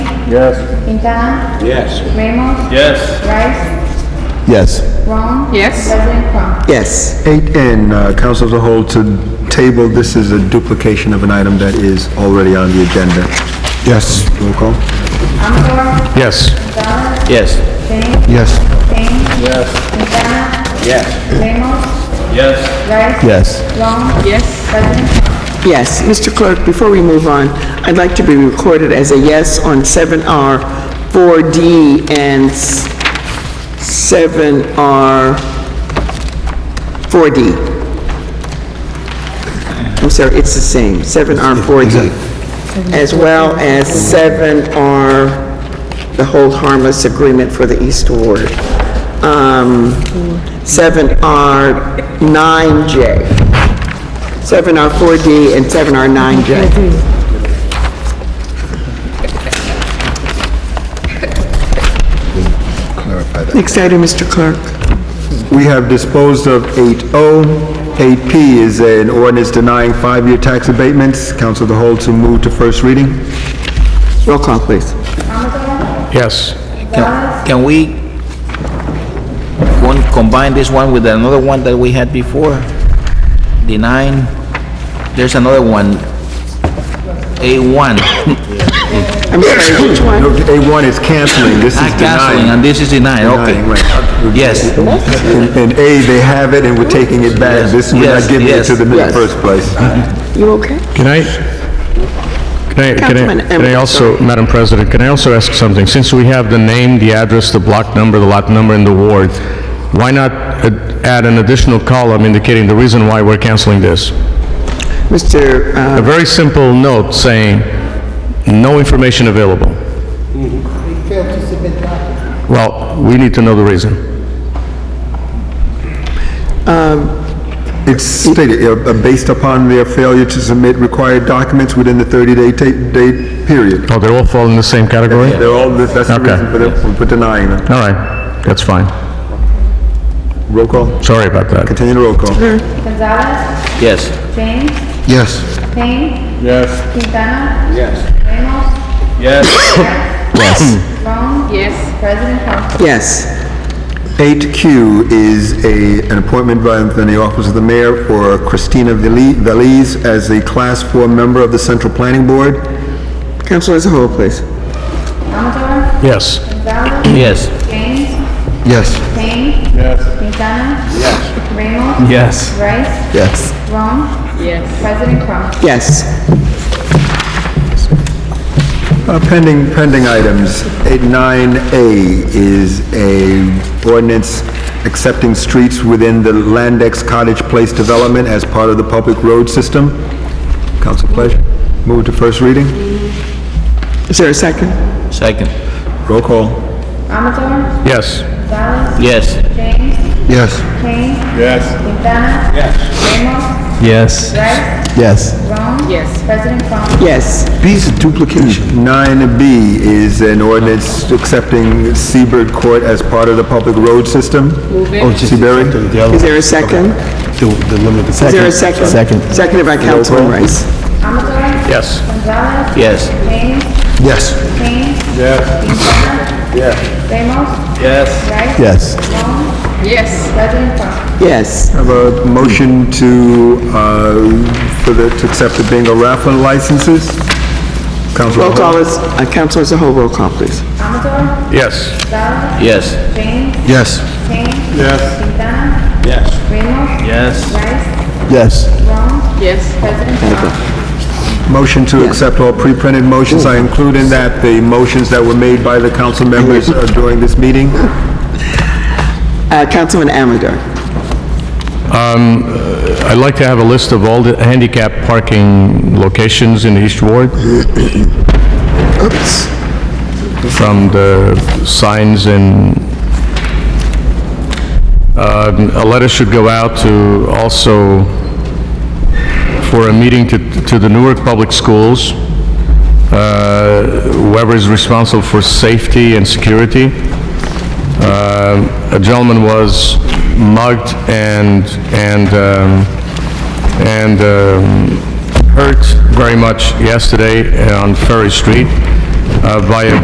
Yes. Quintana, Yes. Ramos, Yes. Rice, Yes. Ron. Yes. President Trump. Yes. Eight N, uh, council as a whole to table, this is a duplication of an item that is already on the agenda. Yes. Roll call. Amador, Yes. Gonzalez, Yes. James, Yes. Kane, Yes. Quintana, Yes. Ramos, Yes. Rice. Yes. Ron. Yes. President Trump. Yes. Mr. Clerk, before we move on, I'd like to be recorded as a yes on 7R, 4D, and s- 7R, 4D. I'm sorry, Oh, it's the same, 7R, 4D, as well as 7R, the whole harmless agreement for the East Ward. Um, 7R, 9J. 7R4D and 7R9J. Next item, Mr. Clerk. We have disposed of 8O. 8P is an ordinance denying five-year tax abatements. Council of the whole to move to first reading. Roll call, please. Yes. Can can we one, combine this one with another one that we had before? The nine, there's another one, A1, I'm sorry, which No, one? A1 is canceling, this is not canceling, denying. and this is the nine, okay. Denying, right. Yes, In in A, they have it and we're taking it back. Yes, This, we're yes, not giving it to yes. them in the Yes. first place. You okay? Can I, can I, can I, Councilman can I Emerson. also, Madam President, can I also ask something? Since we have the name, the address, the block number, the lot number, and the ward, why not uh, add an additional column indicating the reason why we're canceling this? Mr., A uh, very simple note saying, no information available. Well, we need to know the reason. It's stated, uh, uh, based upon their failure to submit required documents within the 30-day ta- day period. Oh, they all fall in the same category? They're all, that's the Okay. reason for the- for denying them. All right, that's fine. Roll call. Sorry about that. Continue the roll call. Gonzalez, yes. James, Yes. Kane, Yes. Quintana, Yes. Ramos, Yes. Ron. Yes. President Trump. yes. 8Q is a, an appointment by from the Office of the Mayor for Christina Vili- Veliz as a Class 4 member of the Central Planning Board. Council as a whole, please. Amador, Yes. Gonzalez, Yes. James, Yes. Kane, Quintana, Ramos, Yes. Rice, Yes. Ron. Yes. President Trump. Yes. Uh, Pending, pending items. 9A is a ordinance accepting streets within the Landex Cottage Place development as part of the public road system. Council pleasure. Move to first reading. Is there a second? Second. Roll call. Amador, Yes. Gonzalez, Yes. James, Yes. Kane, Yes. Quintana, Ramos, Yes. Rice, Yes. Ron. Yes. President Trump. Yes. These are duplication. 9B is an ordinance accepting Seabird Court as part of the public road system. Move it. Oh, Seabury? Is there a second? Is there a second? Second. Seconded by Councilman Rice. Amador. Yes. Gonzalez. Yes. James. Yes. Kane. Quintana. Ramos. Yes. Rice. Yes. Ron. Yes. President Trump. Yes. Have a motion to, uh, for the, to accept the bingo raffle licenses. Council Roll call is, uh, Council as a whole, roll call, please. Amador. Yes. Gonzalez. Yes. James. Yes. Kane. Quintana. Yes. Ramos. Yes. Rice. Yes. Ron. Yes. President Trump. Motion to accept all pre-printed motions. I include in that the motions that were made by the council members uh, during this meeting. Uh, Councilman Amador. I'd like to have a list of all the handicap parking locations in the East Ward. Oops. from the signs and, um, a letter should go out to also, for a meeting to, to the Newark Public Schools, uh, whoever is responsible for safety and security. Um, A gentleman was mugged and, and, um, and um, hurt very much yesterday on Ferry Street uh, by a